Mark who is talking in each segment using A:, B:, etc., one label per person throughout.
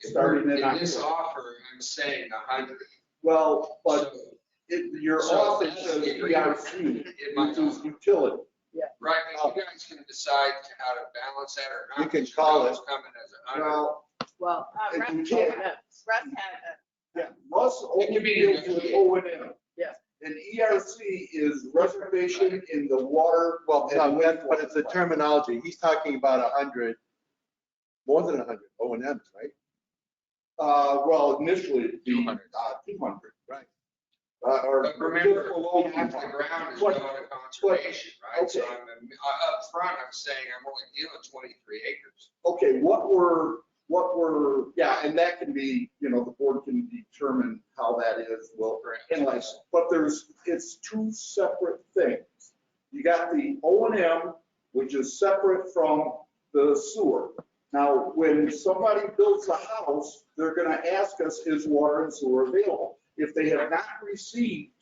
A: If we're-
B: Starting in
A: in this
B: October.
A: offer, I'm saying a hundred.
B: Well, but
A: So,
B: it, your
A: So
B: office
A: that's
B: says
A: the
B: EIC,
A: It might,
B: which is utility.
A: right, but you guys can decide how to balance that or not.
B: You can call
A: It's Coming as a hundred.
B: Now,
C: Well,
D: Uh,
B: If
D: Russ
B: you
D: had
B: can't-
D: a- Russ had
B: yeah, Russ
A: It
B: only
A: can be
B: deals with
A: negotiated.
B: O and M.
C: Yeah.
B: And EIC is reservation in the water.
E: Well,
B: and
E: no, that- but
B: wastewater.
E: it's the terminology. He's talking about a hundred, more than a hundred O and Ms, right?
B: Uh, well, initially it'd be,
E: 200.
B: uh, two hundred.
E: Right.
B: Uh, or.
A: But remember,
B: just below
A: half the
B: 200.
A: ground is
B: What-
A: going to conservation, right? So
B: okay.
A: I'm, uh, up front, I'm saying I'm only dealing twenty-three acres.
B: okay, what were, what were, yeah, and that can be, you know, the board can determine how that is, well, analyze. But there's, it's two separate things. You got the O and M, which is separate from the sewer. Now, when somebody builds a house, they're gonna ask us, is water and sewer available? If they have not received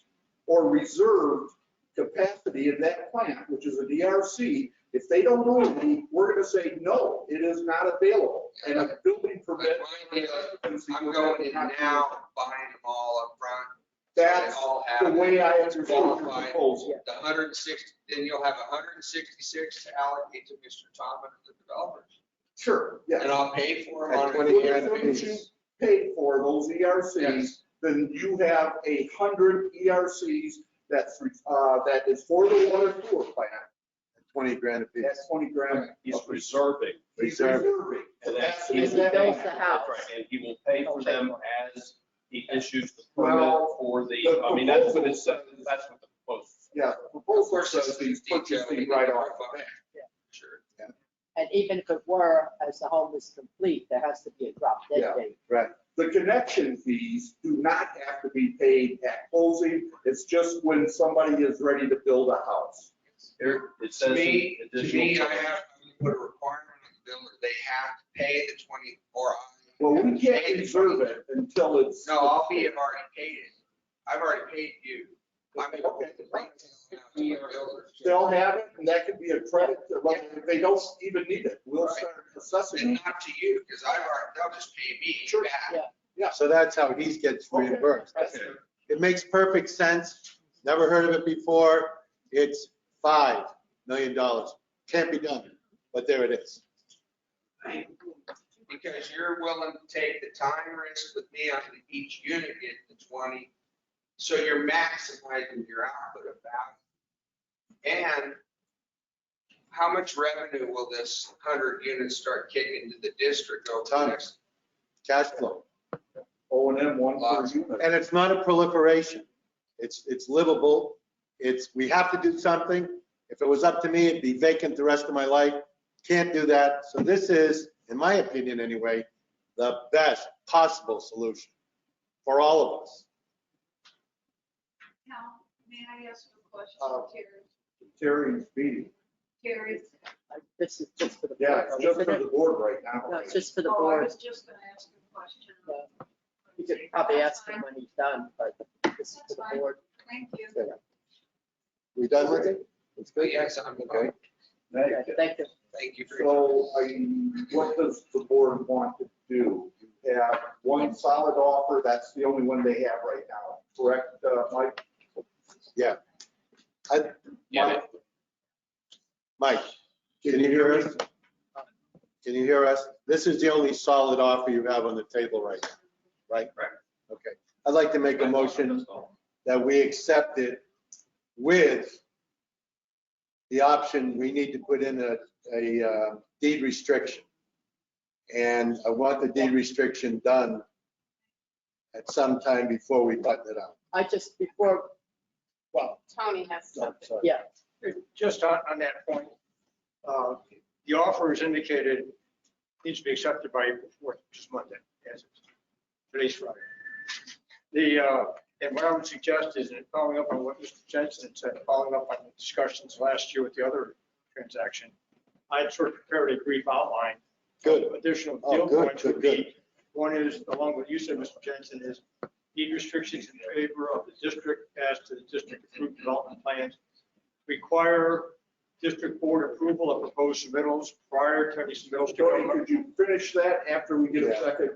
B: or reserved capacity in that plant, which is a DRC, if they don't know any, we're gonna say, no, it is not available. And a building
A: But
B: permit.
A: my deal, I'm going in now, buying them all up front. so they
B: That's
A: all
B: The
A: have
B: way I understood your
A: Qualified,
B: proposal.
A: the hundred and sixty, then you'll have hundred and sixty-six to allocate to Mr. Thomas and the developers.
B: Sure,
A: And
B: yeah.
A: I'll pay for it
E: At
A: on. a
E: 20
A: yearly
E: grand a
A: basis.
B: piece. Paid for those ERCs,
A: Yes.
B: then you have a hundred ERCs that's, uh, that is for the water sewer plant.
E: Twenty grand a piece.
B: That's twenty grand.
F: He's reserving.
B: He's
E: reserved.
B: reserving.
F: and that's-
B: Capacity in that
C: builds the
B: plant.
C: house.
F: Right, And he will pay for them as he issues the permit
B: Well,
F: for the,
B: the
F: I mean, that's what
B: proposal
F: it says,
B: says-
F: that's what the proposal. says.
B: Yeah, the
A: Of
B: proposal
A: course,
B: says
A: it's
B: he's
A: detailed.
B: purchasing right off the bat.
A: Sure.
D: And even if it were, as the home is complete, there has to be a drop
B: Yeah.
D: dead date.
E: Right.
B: The connection fees do not have to be paid at closing. It's just when somebody is ready to build a house.
F: Here, it
A: To
F: says.
A: me,
F: an
A: to
F: additional-
A: me, I have to put a requirement on the builder, they have to pay the twenty, or I.
B: Well, we can't
A: Pay the
B: reserve it until it's.
A: No, I'll be, I've already paid it. I've already paid you. I'm able to rent it out to my builders.
B: They'll have it and that could be a credit, to- like, if they don't even need it, we'll start assessing.
A: And
B: it.
A: not to you, because I've already, they'll just pay me
B: Sure.
A: back.
E: So that's how he gets
B: Okay.
E: reimbursed.
F: Okay.
E: It makes perfect sense. Never heard of it before. It's five million dollars. Can't be done, but there it is.
A: Because you're willing to take the time risk with me on each unit getting the twenty. So you're maximizing your output of value. And how much revenue will this hundred units start kicking into the district over the
E: Tons.
A: next?
E: Cash flow.
B: O and M one per
A: Lots.
B: unit.
E: And it's not a proliferation. It's, it's livable. It's, we have to do something. If it was up to me, it'd be vacant the rest of my life. Can't do that. So this is, in my opinion anyway, the best possible solution for all of us.
G: Now, may I ask a question,
B: Uh,
G: Terry?
B: Terry's meeting.
G: Terry?
D: Like, This is just for the.
B: Yeah,
D: board,
B: it's just
D: isn't
B: for
D: it?
B: the board right
D: No,
B: now.
D: it's just for the
G: Oh, I
D: board.
G: was just gonna ask a question.
D: Yeah. You could probably ask him when he's done, but this is for
G: That's
D: the
G: fine,
D: board.
G: thank you.
E: We done with it?
B: It's
A: But
B: good.
A: yes, I'm,
B: Okay.
D: Okay, Thank you.
A: thank you for. your-
B: So I, what does the board want to do? You Have one solid offer, that's the only one they have right now, correct, uh, Mike?
F: Yeah,
B: Mike,
E: Mike, can you hear us? Can you hear us? This is the only solid offer you have on the table right now, right?
F: Right.
E: Okay. I'd like to make a motion that we accept it with the option, we need to put in a, a uh, deed restriction. And I want the deed restriction done at some time before we button it out.
D: I just, before, well,
C: Tony has
E: So,
C: something.
E: sorry.
D: yeah,
H: Just on, on that point, uh, the offer is indicated, needs to be accepted by April 4th, which is Monday, as of today's Friday. The, uh, and what I would suggest is, and following up on what Mr. Jensen said, following up on the discussions last year with the other transaction, I'd sort of prepared a brief outline.
E: Good.
H: of Additional
E: Oh,
H: deal
E: good,
H: points
E: good,
H: would be, one is, along with you said, Mr. Jensen, is deed restrictions in favor of the district as to the district approved development plans. Require district board approval of proposed submittals prior to any submittals. to go
B: Jody, could you finish that after we get a second